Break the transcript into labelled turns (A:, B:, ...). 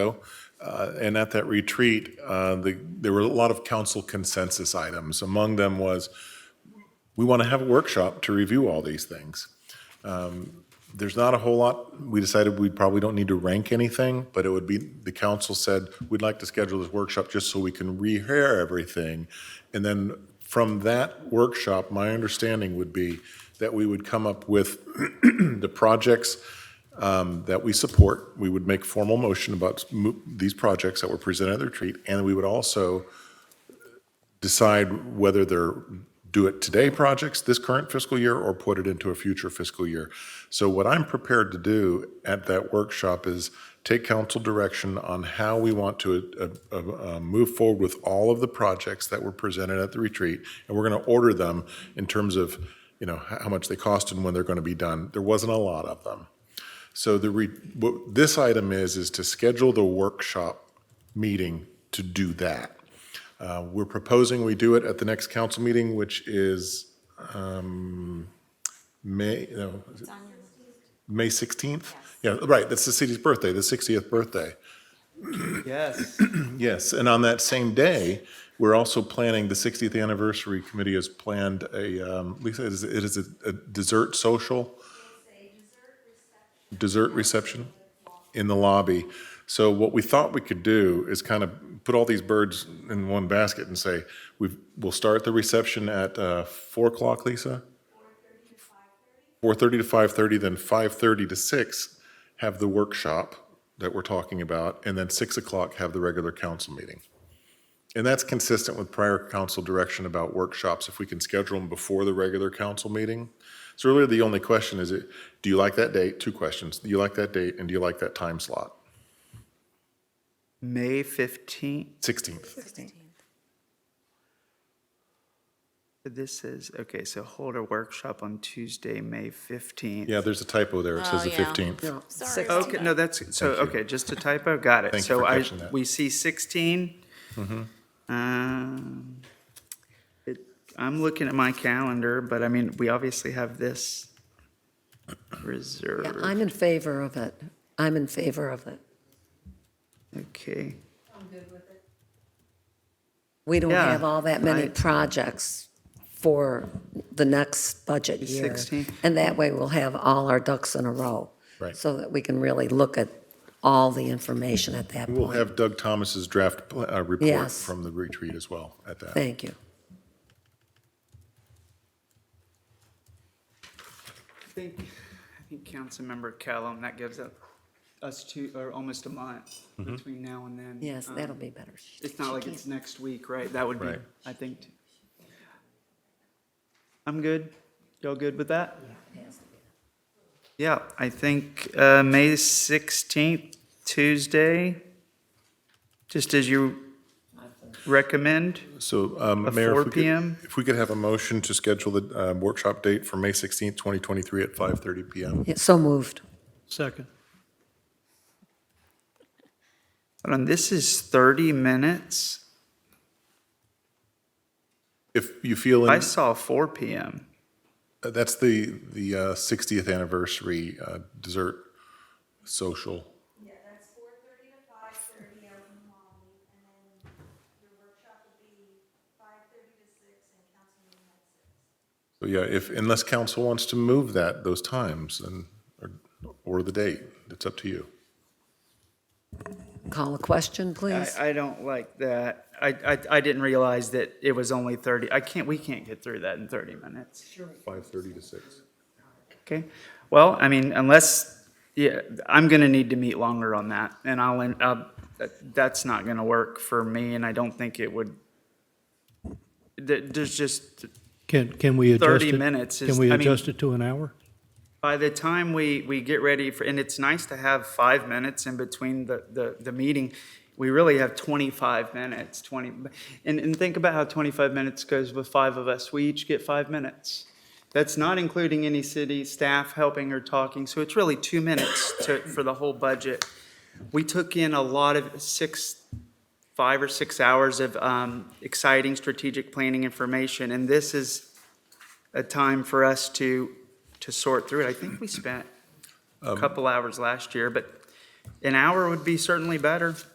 A: Uh, And at that retreat, uh, the- there were a lot of council consensus items. Among them was, we want to have a workshop to review all these things. Um, There's not a whole lot, we decided we probably don't need to rank anything, but it would be, the council said, we'd like to schedule this workshop just so we can rehear everything. And then from that workshop, my understanding would be that we would come up with the projects um, that we support. We would make formal motion about mo- these projects that were presented at the retreat, and we would also decide whether they're do it today projects this current fiscal year or put it into a future fiscal year. So what I'm prepared to do at that workshop is take council direction on how we want to uh, uh, uh, move forward with all of the projects that were presented at the retreat. And we're going to order them in terms of, you know, how how much they cost and when they're going to be done. There wasn't a lot of them. So the re, what this item is, is to schedule the workshop meeting to do that. Uh, We're proposing we do it at the next council meeting, which is um, May, no, is it- May 16th? Yeah, right, that's the city's birthday, the 60th birthday.
B: Yes.
A: Yes, and on that same day, we're also planning, the 60th anniversary committee has planned a, um, Lisa, it is- it is a a dessert social? Dessert reception in the lobby. So what we thought we could do is kind of put all these birds in one basket and say, we've, we'll start the reception at uh, 4 o'clock, Lisa? 4:30 to 5:30, then 5:30 to 6 have the workshop that we're talking about, and then 6 o'clock have the regular council meeting. And that's consistent with prior council direction about workshops, if we can schedule them before the regular council meeting. So really, the only question is, do you like that date? Two questions. Do you like that date, and do you like that time slot?
B: May 15th.
A: 16th.
B: This is, okay, so hold a workshop on Tuesday, May 15th.
A: Yeah, there's a typo there. It says the
C: Oh, yeah.
A: 15th.
C: Sorry.
B: Okay, no, that's, so, okay, just a typo, got it.
A: Thank you
B: So
A: for
B: I,
A: catching that. Mm-hmm.
B: we see 16. Um, it- I'm looking at my calendar, but I mean, we obviously have this
D: Yeah,
B: reserved.
D: I'm in favor of it. I'm in favor of it.
B: Okay,
D: We don't
B: Yeah,
D: have all that many
B: I-
D: projects for the next budget
B: The
D: year.
B: 16.
D: And that way, we'll have all our ducks in a row.
A: Right.
D: So that we can really look at all the information at that
A: We'll
D: point.
A: have Doug Thomas's draft pl- uh, report
D: Yes.
A: from the retreat as well at that.
D: Thank you.
B: I think, I think Councilmember Callum, that gives up us two, or almost a month
A: Mm-hmm.
B: between now and then.
D: Yes,
B: Um,
D: that'll be better.
B: It's not like it's next week, right? That would be,
A: Right.
B: I think. t- I'm good. Y'all good with that? Yeah, I think uh, May 16th, Tuesday, just as you recommend.
A: So, um,
B: At
A: Mayor,
B: 4
A: if we could,
B: PM?
A: if we could have a motion to schedule the um, workshop date for May 16th, 2023 at 5:30 PM.
D: Yeah, So moved.
E: Second.
B: Hold on, this is 30 minutes.
A: If you feel,
B: I
A: in-
B: saw 4 PM.
A: that's the, the uh, 60th anniversary uh, dessert social.
F: Yeah, that's four thirty to five thirty out in the lobby, and then your workshop will be five thirty to six and council meeting at six.
A: So yeah, if, unless council wants to move that, those times and, or- or the date, it's up to you.
D: Call a question,
B: I,
D: please.
B: I don't like that. I, I, I didn't realize that it was only 30. I can't, we can't get through that in 30 minutes.
A: 5:30 to 6.
B: Okay, well, I mean, unless, yeah, I'm gonna need to meet longer on that, and I'll, en- uh, that- that's not gonna work for me, and I don't think it would. There, there's just,
E: Can, can we adjust it?
B: 30 minutes is-
E: Can we
B: I mean-
E: adjust it to an hour?
B: by the time we, we get ready for, and it's nice to have five minutes in between the, the, the meeting, we really have twenty-five minutes, twenty, and, and think about how twenty-five minutes goes with five of us, we each get five minutes. That's not including any city staff helping or talking, so it's really two minutes to, for the whole budget. We took in a lot of six, five or six hours of, um, exciting strategic planning information, and this is a time for us to, to sort through it. I think we spent a couple hours last year, but An hour would be certainly better.